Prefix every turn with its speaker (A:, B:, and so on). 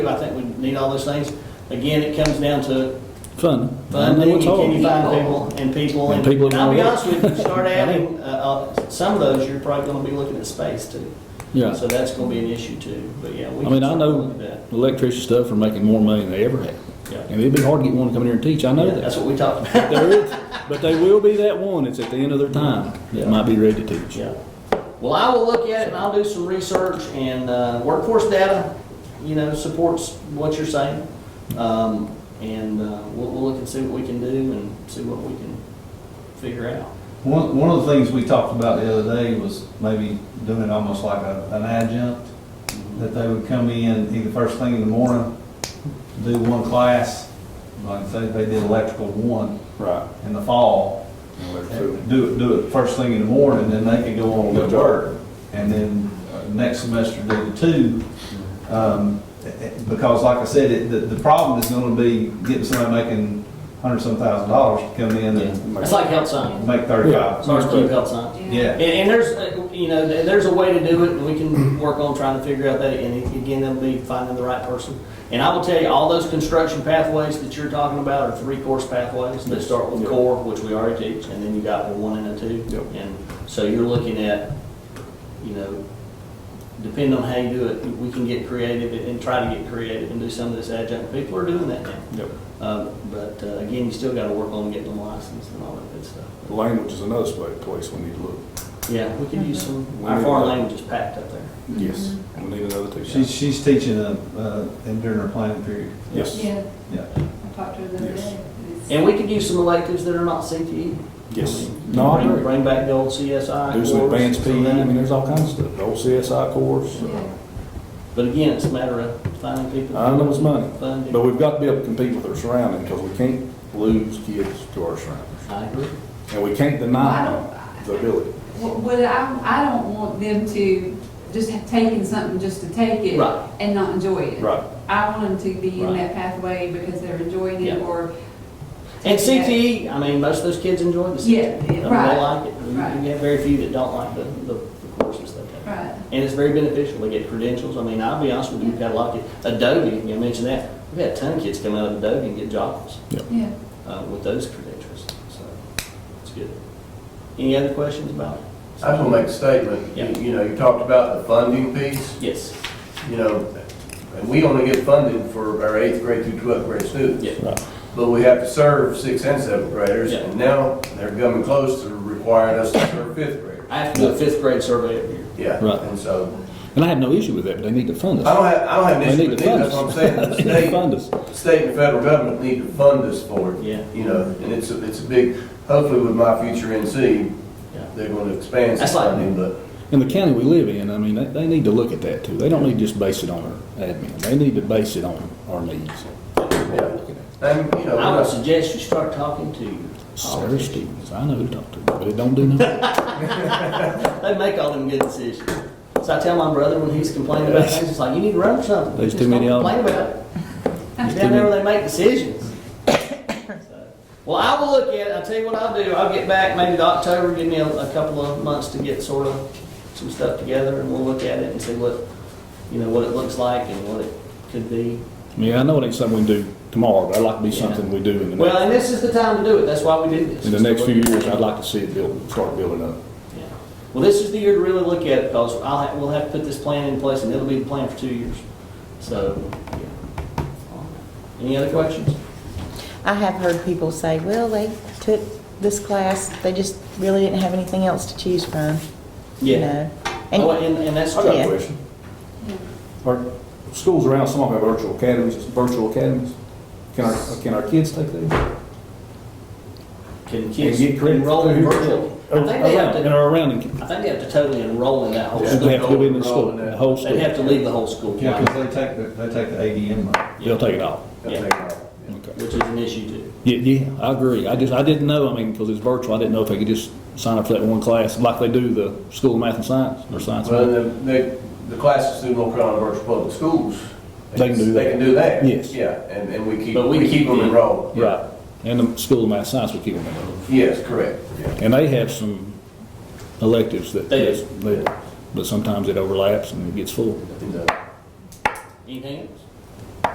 A: I think we need all those things. Again, it comes down to
B: Fun.
A: funding, and can you
B: hard.
A: find people, and people,
B: And people
A: and I'll be
B: wanna
A: honest with you, start adding, uh, uh, some of those, you're probably gonna be looking at space too.
B: Yeah.
A: So that's gonna be an issue too, but yeah. we
B: I mean,
A: can
B: I know-
A: look at that.
B: Electrician stuff are making more money than they ever have.
A: Yeah.
B: And it'd be hard to get one to come in here and teach, I know
A: Yeah,
B: that.
A: That's what we talked about.
B: There is, but they will be that one, it's at the end of their time, that might be ready to teach.
A: Yeah. Well, I will look at it and I'll do some research and, uh, workforce data, you know, supports what you're saying. Um, and, uh, we'll, we'll look and see what we can do and see what we can figure out.
C: One, one of the things we talked about the other day was maybe doing it almost like a, an adjunct, that they would come in either first thing in the morning, do one class, like say they did electrical one
D: Right.
C: in the fall, and do it, do it first thing in the morning, then they could go on to work. And then uh, next semester do the two. Um, eh, eh, because like I said, it, the, the problem is gonna be getting somebody making hundred some thousand dollars to come in and
A: It's like health science.
C: make thirty-five.
A: It's our school health science.
C: Yeah.
A: And, and there's, uh, you know, th- there's a way to do it, and we can work on trying to figure out that, and again, that'll be finding the right person. And I will tell you, all those construction pathways that you're talking about are three-course pathways, that start with core, which we already teach, and then you got the one and a two.
D: Yep.
A: And so you're looking at, you know, depending on how you do it, we can get creative and- and try to get creative and do some of this adjunct, people are doing that now.
D: Yep.
A: Uh, but, uh, again, you still gotta work on getting them licensed and all that good stuff.
D: Language is another spa- place we need to look.
A: Yeah, we could use some,
D: We
A: our
D: need
A: foreign
D: to-
A: language is packed up there.
D: Yes. We need another teacher.
C: She's, she's teaching a, uh, and during her planning period.
D: Yes,
E: Yeah,
C: Yeah.
E: I talked to her the other
D: Yes.
E: day. It's-
A: And we could use some electives that are not CTE.
D: yes. No, I
A: Bring,
D: agree.
A: bring back the old CSI
D: Do some
A: course.
D: advanced
A: some
D: PE,
A: of
D: I mean,
A: that.
D: there's all kinds of stuff, the old CSI course.
E: Yeah.
A: But again, it's a matter of finding people.
D: I know it's money,
A: Funding.
D: but we've got to be able to compete with our surrounding, because we can't lose kids to our surroundings.
A: I agree.
D: And we can't
B: Uh-huh.
E: I
D: deny
E: don't,
D: the ability.
E: Well, But I, I don't want them to just have taken something just to take it
A: Right.
E: and not enjoy it.
D: Right.
E: I want them to be in
A: Right.
E: that pathway because they're enjoying
A: Yeah.
E: it or.
A: And CTE, I mean, most of those kids enjoy the CTE.
E: Yeah,
A: I mean, They
E: right,
A: like it. You-
E: right.
A: You have very few that don't like the, the the courses they take.
E: Right,
A: And it's very beneficial. They get credentials. I mean, I'll be honest with you, we've got a lot of, kids- Adobe, you mentioned that. We've had a ton of kids come out of Adobe and get jobs.
E: yeah.
A: uh, with those credentials, so it's good. Any other questions about it?
F: I just want to make a statement.
A: Yeah.
F: You- You know, you talked about the funding piece,
A: Yes,
F: you know, and we only get funded for our eighth grade through 12th grade students.
A: yeah,
F: But we have to serve sixth and seventh graders,
A: Yeah.
F: and now they're coming close to requiring us to serve fifth graders.
A: I have to do a fifth grade survey every year.
F: Yeah,
B: Right.
F: and so,
B: And I have no issue with that, but they need to fund
F: I
B: us.
F: don't have, I don't have an
B: They
F: issue
B: need
F: with
B: to
F: it,
B: fund
F: that's what I'm saying. The
B: us. They need to fund
F: state,
B: us.
F: the state and federal government need to fund us for it.
A: Yeah.
F: You know, and it's, a it's a big, hopefully with my future NC,
A: Yeah.
F: they're going to expand
A: That's
F: some
A: like-
F: funding, but.
B: In the county we live in, I mean, they, they need to look at that too. They don't need to just base it on our admin. They need to base it on our needs.
F: And, you know,
A: I
F: we're
A: would
F: not-
A: suggest you start talking to your
B: Sarah
A: politicians.
B: Stevens, I know who talked to her, but it don't do nothing.
A: They make all them good decisions. So I tell my brother when he's complaining about things, it's like, you need to run for something.
B: There's
A: Just
B: too many
A: don't
B: of 'em.
A: Complain about it.
B: There's
A: It's
B: too
A: down there
B: many.
A: where they make decisions. So, Well, I will look at it. I'll tell you what I'll do. I'll get back maybe to October, give me a, a couple of months to get sort of some stuff together and we'll look at it and see what, you know, what it looks like and what it could be.
B: I mean, I know it ain't something we can do tomorrow, but I'd like to be
A: Yeah.
B: something we do in the
A: Well,
B: next,
A: and this is the time to do it. That's why we did this.
B: in the next few years, I'd like to see it build, start building up.
A: Yeah. Well, this is the year to really look at it, because I'll, ha- we'll have to put this plan in place, and it'll be the plan for two years. So, yeah. Any other questions?
G: I have heard people say, well, they took this class, they just really didn't have anything else to choose from, you
A: Yeah.
G: know? And-
A: Oh, and, and that's
D: I got
A: true.
G: Yeah.
D: a question. Our schools around, some of them have virtual academies, virtual academies. Can our, can our kids take that?
A: Can
D: And
A: kids
D: get credit Oh,
A: enroll in
D: through-
A: virtual? I think they have
B: Around, and
A: to,
B: our surrounding,
A: I think they have to totally enroll in that whole
B: they
A: school.
B: Oh, have to do it in the school, the whole
A: They'd
B: school.
A: have to leave the whole school,
C: Yeah,
A: yeah,
C: because they take, the- they take the ADM money.
B: They'll take it all.
F: They'll
A: Yeah.
F: take it all.
B: Okay.
A: which is an issue too.
B: Yeah, yeah, I agree. I just, I didn't know, I mean, because it's virtual, I didn't know if they could just sign up for that one class, like they do the School of Math and Science, or Science.
F: Well,
B: and Math.
F: the, the, the classes through North Carolina Virtual Public Schools.
B: They can do that.
F: They can do that.
B: Yes.
F: Yeah, and, and we keep,
A: But we
F: we keep
A: keep
F: them
A: the-
F: enrolled.
B: Right, and the School of Math and Science would keep them in.
F: Yes, correct, yeah.
B: And they have some electives that,
A: They do.
B: that- but sometimes it overlaps and it gets full.
F: And, uh,
A: Anything else?